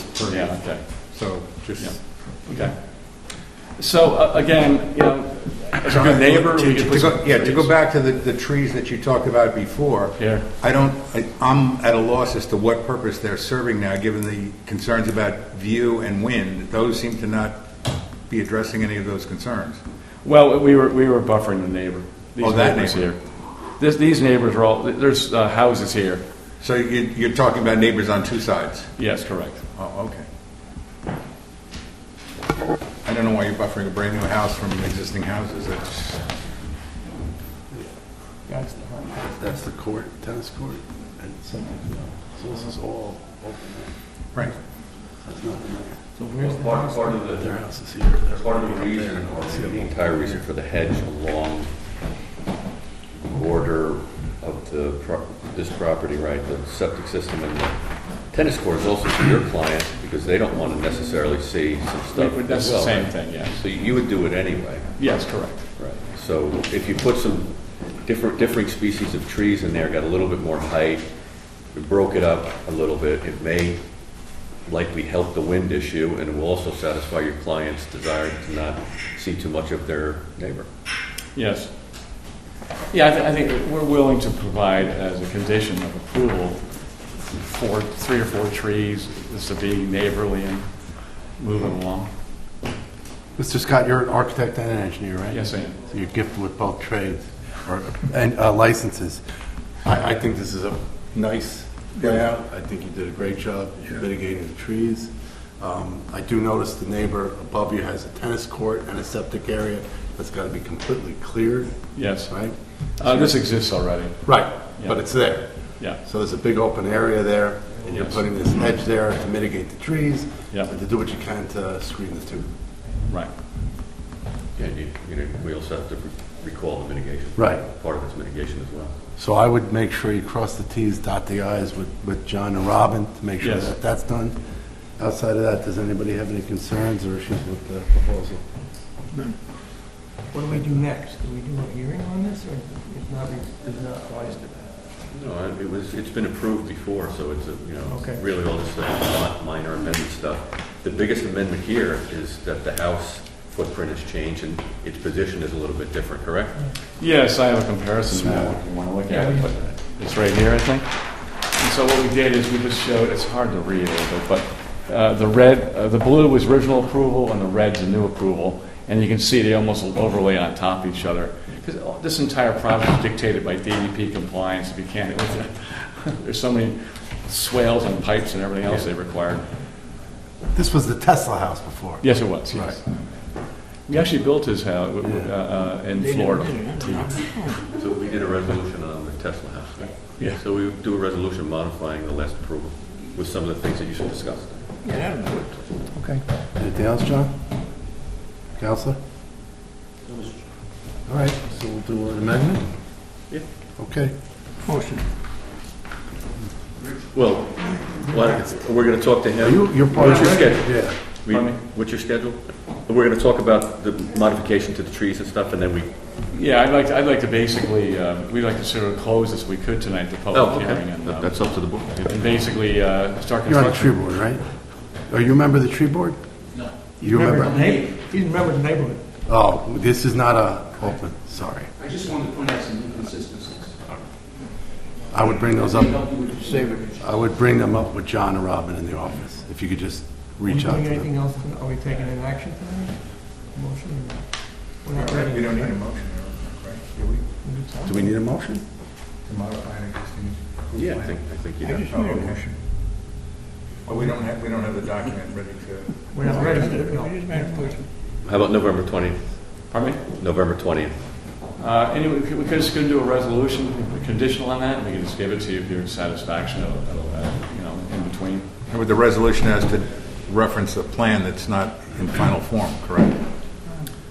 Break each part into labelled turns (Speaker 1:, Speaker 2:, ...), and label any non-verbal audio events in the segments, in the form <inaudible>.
Speaker 1: for you.
Speaker 2: Yeah, okay.
Speaker 1: So just,
Speaker 2: Okay. So uh, again, you know, as a good neighbor, we
Speaker 1: To
Speaker 2: could put
Speaker 1: go-
Speaker 2: some
Speaker 1: Yeah, to go
Speaker 2: trees
Speaker 1: back to the, the trees that you talked about before,
Speaker 2: Here.
Speaker 1: I don't, I- I'm at a loss as to what purpose they're serving now, given the concerns about view and wind. Those seem to not be addressing any of those concerns.
Speaker 2: Well, we were, we were buffering the neighbor.
Speaker 1: Oh,
Speaker 2: These
Speaker 1: that
Speaker 2: neighbors
Speaker 1: neighbor.
Speaker 2: here. This, these neighbors are all, there's uh, houses here.
Speaker 1: So you, you're talking about neighbors on two sides?
Speaker 2: Yes, correct.
Speaker 1: Oh, okay. I don't know why you're buffering a brand-new house from existing houses. It's,
Speaker 3: That's the court, tennis court, and something, so this is all open,
Speaker 1: right.
Speaker 3: there's nothing there.
Speaker 4: Part, part of the,
Speaker 3: Their house is here, their
Speaker 4: part of the reason, or the entire reason for the hedge along the border of the, pro- this property, right, the septic system and the tennis court is also for your client, because they don't want to necessarily see some stuff
Speaker 2: But
Speaker 4: as
Speaker 2: That's the
Speaker 4: well.
Speaker 2: same
Speaker 4: right?
Speaker 2: thing, yeah.
Speaker 4: So you would do it anyway,
Speaker 2: Yes, correct.
Speaker 4: right? So if you put some different, differing species of trees in there, got a little bit more height, we broke it up a little bit, it may likely help the wind issue, and it will also satisfy your client's desire to not see too much of their neighbor.
Speaker 2: Yes. Yeah, I, thi- I think we're willing to provide as a condition of approval, four, three or four trees, this to be neighborly and moving along.
Speaker 3: Mr. Scott, you're an architect and an engineer, right?
Speaker 2: Yes, I am.
Speaker 3: So you're gifted with both trades, or, and uh, licenses. I, I think this is a nice layout, I think you did a great job mitigating the trees. Um, I do notice the neighbor above you has a tennis court and a septic area that's gotta be completely cleared,
Speaker 2: Yes.
Speaker 3: right?
Speaker 2: Uh, this exists already,
Speaker 3: Right, but
Speaker 2: Yeah.
Speaker 3: it's there.
Speaker 2: yeah.
Speaker 3: So there's a big open area there, and you're
Speaker 2: Yes.
Speaker 3: putting this hedge there to mitigate the trees,
Speaker 2: Yeah.
Speaker 3: and to do what you can to screen the two.
Speaker 2: Right.
Speaker 4: Yeah, you, you know, we also have to recall the mitigation.
Speaker 3: Right.
Speaker 4: Part of it's mitigation as well.
Speaker 3: So I would make sure you cross the Ts, dot the Is with, with John and Robin to make sure
Speaker 2: Yes.
Speaker 3: that that's done. Outside of that, does anybody have any concerns or issues with the proposal?
Speaker 5: What do we do next? Do we do a hearing on this, or is not, is not wise to that?
Speaker 4: No, I- it was, it's been approved before, so it's, a you know,
Speaker 5: Okay.
Speaker 4: really all this stuff, is not minor amendment stuff. The biggest amendment here is that the house footprint has changed and its position is a little bit different, correct?
Speaker 2: Yes, I have a comparison now, if you want to look at it, but it's right here, I think. And so what we did is we just showed, it's hard to read a little bit, but uh, the red, uh, the blue was original approval and the red's a new approval, and you can see they almost overlay on top of each other. Because this entire project is dictated by DEP compliance, if you can't, <laughs> there's so many swales and pipes and everything else they require.
Speaker 3: This was the Tesla house before.
Speaker 2: Yes, it was, yes. We actually built his house uh, uh, in Florida.
Speaker 4: So we did a resolution on the Tesla house. right?
Speaker 2: Yeah.
Speaker 4: So we do a resolution modifying the last approval with some of the things that you should discuss.
Speaker 5: Yeah, that'll do it.
Speaker 3: Okay. Anything else, John? Counselor? All right, so we'll do an amendment?
Speaker 4: Yeah.
Speaker 3: Okay.
Speaker 5: Motion.
Speaker 4: Well, why- we're going to talk to
Speaker 3: Are
Speaker 4: him.
Speaker 3: you, you're part of
Speaker 4: What's your
Speaker 3: it?
Speaker 4: schedule?
Speaker 3: Yeah.
Speaker 4: We-
Speaker 2: Pardon me?
Speaker 4: What's your schedule? We're going to talk about the modification to the trees and stuff, and then we,
Speaker 2: Yeah, I'd like, to- I'd like to basically, uh, we'd like to sort of close as we could tonight, the
Speaker 4: oh,
Speaker 2: public hearing.
Speaker 4: okay.
Speaker 2: and,
Speaker 4: That-
Speaker 2: um,
Speaker 4: That's up to the board.
Speaker 2: And basically, uh, start
Speaker 3: You're on the tree
Speaker 2: construction.
Speaker 3: board, right? Are you a member of the tree board? No. You remember?
Speaker 5: He's a member of the neighborhood.
Speaker 3: Oh, this is not a open, sorry.
Speaker 6: I just wanted to point out some inconsistencies.
Speaker 3: I would bring those up,
Speaker 6: Save it.
Speaker 3: I would bring them up with John and Robin in the office, if you could just
Speaker 5: Are we
Speaker 3: reach out
Speaker 5: doing
Speaker 3: to them.
Speaker 5: anything else? Are we taking an action tonight? Motion? or not? We're not ready.
Speaker 1: We don't need a motion, right? Do we?
Speaker 3: Do we need a motion?
Speaker 1: To modify an existing?
Speaker 4: Yeah, I think, I think you have.
Speaker 1: Oh, okay. Well, we don't have, we don't have the document ready to.
Speaker 5: We're not ready. No.
Speaker 4: How about November 20th?
Speaker 2: Pardon me?
Speaker 4: November 20th.
Speaker 2: Uh, Anyway, we could- we could just go do a resolution conditional on that, and we can just give it to you if you're satisfaction, of- of, uh, you know, in between.
Speaker 1: With the resolution has to reference a plan that's not in final form, correct?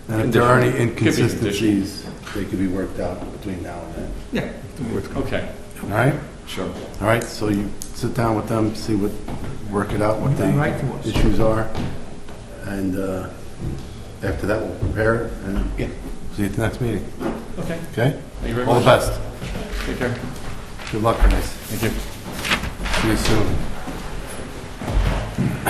Speaker 3: And if there are any
Speaker 2: conditional.
Speaker 3: inconsistencies, they could be worked out between now and then.
Speaker 5: Yeah.
Speaker 2: Okay,
Speaker 3: All right?
Speaker 2: sure.
Speaker 3: All right, so you sit down with them, see what, work it out, what
Speaker 5: Come right to
Speaker 3: the
Speaker 5: us.
Speaker 3: issues are. And uh, after that, we'll prepare it and see you at the next meeting,
Speaker 2: Okay,
Speaker 3: okay?
Speaker 2: thank you very
Speaker 3: All the
Speaker 2: much.
Speaker 3: best.
Speaker 2: Take care.
Speaker 3: Good luck, guys.
Speaker 2: Thank you.
Speaker 3: See you soon.